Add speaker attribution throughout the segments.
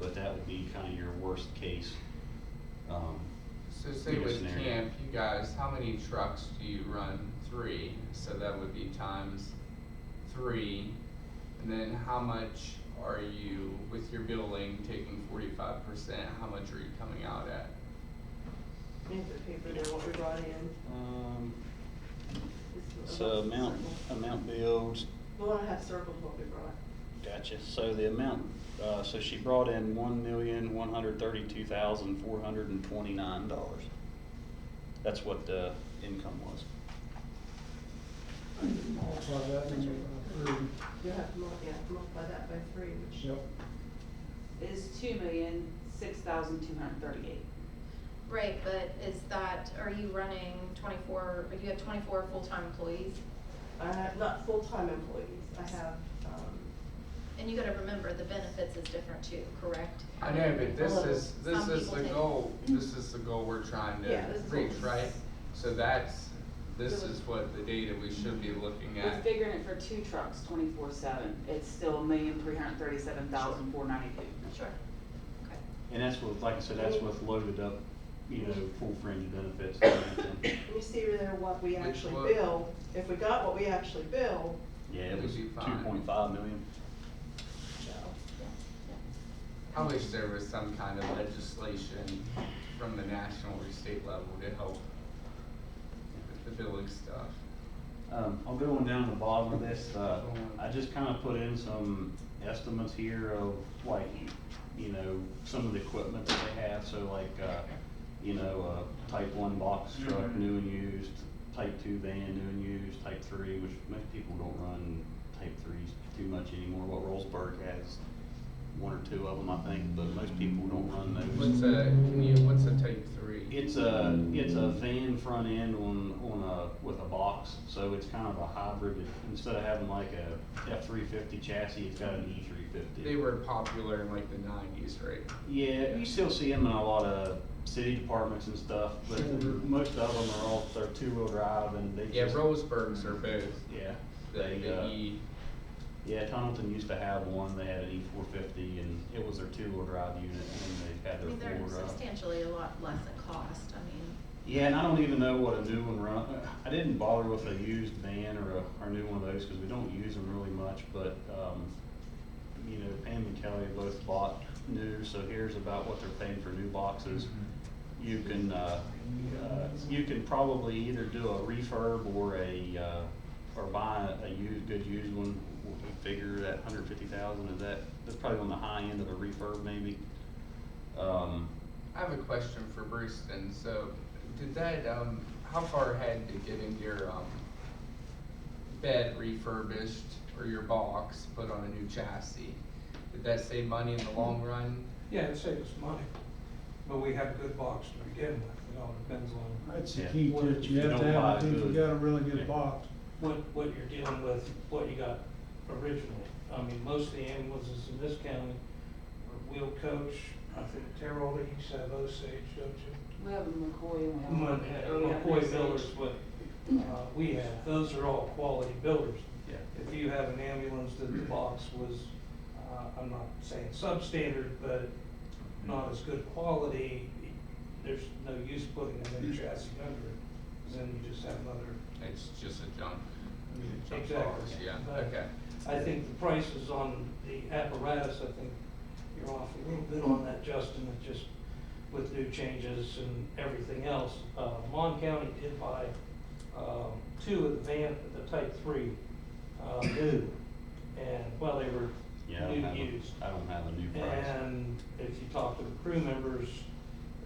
Speaker 1: but that would be kind of your worst case. um,
Speaker 2: So say
Speaker 1: you know,
Speaker 2: with
Speaker 1: scenario.
Speaker 2: camp, you guys, how many trucks do you run? Three, so that would be times three. And then how much are you, with your billing taking forty-five percent, how much are you coming out at?
Speaker 3: We have to pay for now what we brought in.
Speaker 1: Um,
Speaker 3: It's
Speaker 1: so
Speaker 3: about
Speaker 1: amount,
Speaker 3: circled.
Speaker 1: amount billed,
Speaker 3: We wanna have circled what we brought.
Speaker 1: gotcha, so the amount, uh, so she brought in one million, one hundred thirty-two thousand, four hundred and twenty-nine dollars. That's what the income was.
Speaker 4: Multiply that and make it three.
Speaker 3: You'll have to mul, yeah, multiply that by three, which.
Speaker 4: Yep,
Speaker 5: is two million, six thousand, two hundred thirty-eight.
Speaker 6: Right, but is that, are you running twenty-four, you have twenty-four full-time employees?
Speaker 3: I have, not full-time employees, I have, um,
Speaker 6: And you gotta remember, the benefits is different too, correct?
Speaker 2: I know, but this
Speaker 3: Well,
Speaker 2: is, this
Speaker 6: some
Speaker 2: is
Speaker 6: people
Speaker 2: the
Speaker 6: take-
Speaker 2: goal, this is the goal we're trying to
Speaker 3: Yeah, this is what
Speaker 2: reach,
Speaker 3: we-
Speaker 2: right? So that's, this
Speaker 3: Really-
Speaker 2: is what the data we should be looking
Speaker 5: We're
Speaker 2: at.
Speaker 5: figuring it for two trucks, twenty-four seven, it's still a million, three hundred thirty-seven thousand, four ninety-two.
Speaker 6: Sure. Okay.
Speaker 1: And that's with, like I said, that's with loaded up, you know, full fringe benefits. and everything.
Speaker 3: let me see there what we
Speaker 2: Which
Speaker 3: actually
Speaker 2: one?
Speaker 3: bill. If we got what we actually bill,
Speaker 1: Yeah, it was
Speaker 2: It'd
Speaker 1: two
Speaker 2: be fine.
Speaker 1: point five million.
Speaker 2: I wish there was some kind of legislation from the national or state level to help with the billing stuff.
Speaker 1: Um, I'll go on down to the bottom of this, uh, I just kinda put in some estimates here of like, you know, some of the equipment that they have, so like, uh, you know, uh, type one box truck,
Speaker 2: Mhm.
Speaker 1: new and used, type two van, new and used, type three, which most people don't run type threes too much anymore, what Rollsburg has, one or two of them, I think, but most people don't run those.
Speaker 2: What's a, can you, what's a type three?
Speaker 1: It's a, it's a fan front end on, on a, with a box, so it's kind of a hybrid. It- Instead of having like a F three fifty chassis, it's got an E three fifty.
Speaker 2: They were popular in like the nineties, right?
Speaker 1: Yeah, you still see them in a lot of city departments and stuff, but
Speaker 2: Sure.
Speaker 1: most of them are all, they're two wheel drive and they
Speaker 2: Yeah,
Speaker 1: just.
Speaker 2: Roseburgs are both,
Speaker 1: Yeah,
Speaker 2: the,
Speaker 1: they,
Speaker 2: the
Speaker 1: uh,
Speaker 2: E,
Speaker 1: yeah, Tunnelton used to have one, they had an E four fifty and it was their two wheel drive unit and they've had
Speaker 6: I
Speaker 1: their
Speaker 6: mean, they're
Speaker 1: four wheel drive.
Speaker 6: substantially a lot less in cost, I mean,
Speaker 1: Yeah, and I don't even know what a new one run, I didn't bother with a used van or a, or new one of those, cause we don't use them really much, but, um, you know, Pam and Kelly both bought new, so here's about what they're paying for new boxes. You can, uh, uh, you can probably either do a refurb or a, uh, or buy a, a used, good used one. We'll Figure that hundred fifty thousand, is that, that's probably on the high end of a refurb maybe. Um,
Speaker 2: I have a question for Bruce then, so did that, um, how far ahead did getting your, um, bed refurbished or your box put on a new chassis? Did that save money in the long run?
Speaker 7: Yeah, it saves us money, but we have a good box to begin with, it all depends on
Speaker 4: that's the
Speaker 1: Yeah.
Speaker 4: key to it, you have to have, I think you got a really good box.
Speaker 7: what, what you're dealing with, what you got originally. I mean, most of the ambulances in this county are wheel coach, I think Terrell, you used to have Osage, don't you?
Speaker 5: We have a McCoy and we have.
Speaker 7: Monday,
Speaker 5: we have
Speaker 7: McCoy
Speaker 5: Osage.
Speaker 7: Builders, what, uh, we have, those are all quality builders.
Speaker 1: yeah.
Speaker 7: If you have an ambulance that the box was, uh, I'm not saying substandard, but not as good quality, there's no use putting a new chassis under it, 'cause then you just have another.
Speaker 2: It's just a junk. junk
Speaker 7: Exactly.
Speaker 2: cars, Yeah,
Speaker 7: But
Speaker 2: okay.
Speaker 7: I think the prices on the apparatus, I think you're off a little bit on that, Justin, it just with new changes and everything else. Uh, Mon County did buy, um, two of the van, the type three, uh, new, and, well, they were
Speaker 1: Yeah, I don't have,
Speaker 7: new used.
Speaker 1: a- I don't have a new price.
Speaker 7: And if you talk to the crew members,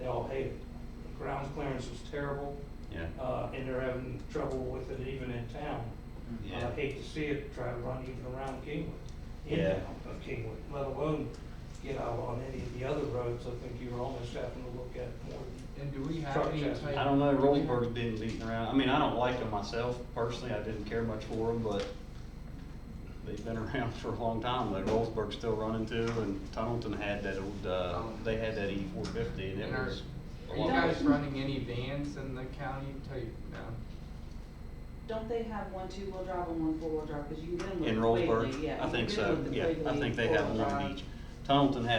Speaker 7: they all hate it. The Ground clearance was terrible,
Speaker 1: Yeah,
Speaker 7: uh, and they're having trouble with it even in town.
Speaker 1: yeah,
Speaker 7: I hate to see it try to run even around Kingwood. in
Speaker 1: Yeah.
Speaker 7: town Of Kingwood, let alone get out on any of the other roads. I think you're almost having to look at more.
Speaker 2: And do we have
Speaker 7: Truck
Speaker 2: any
Speaker 7: chassis.
Speaker 2: type?
Speaker 1: I don't know,
Speaker 2: do we have-
Speaker 1: Rollsburg's been beaten around, I mean, I don't like them myself personally, I didn't care much for them, but they've been around for a long time, like Rollsburg's still running too, and Tunnelton had that old, uh, they had that E four fifty, and it
Speaker 2: And are-
Speaker 1: was. a
Speaker 2: Are you
Speaker 1: lot
Speaker 2: guys
Speaker 1: better.
Speaker 2: running any vans in the county type? No.
Speaker 5: Don't they have one two-wheel drive and one four-wheel drive, cause you can live
Speaker 1: In
Speaker 5: with Quigley, yeah.
Speaker 1: Rollsburg, I
Speaker 5: you
Speaker 1: think
Speaker 5: can
Speaker 1: so,
Speaker 5: live with the
Speaker 1: yeah, I
Speaker 5: Quigley
Speaker 1: think they have
Speaker 5: four-wheel
Speaker 1: one
Speaker 5: drive.
Speaker 1: of each. Tunnelton had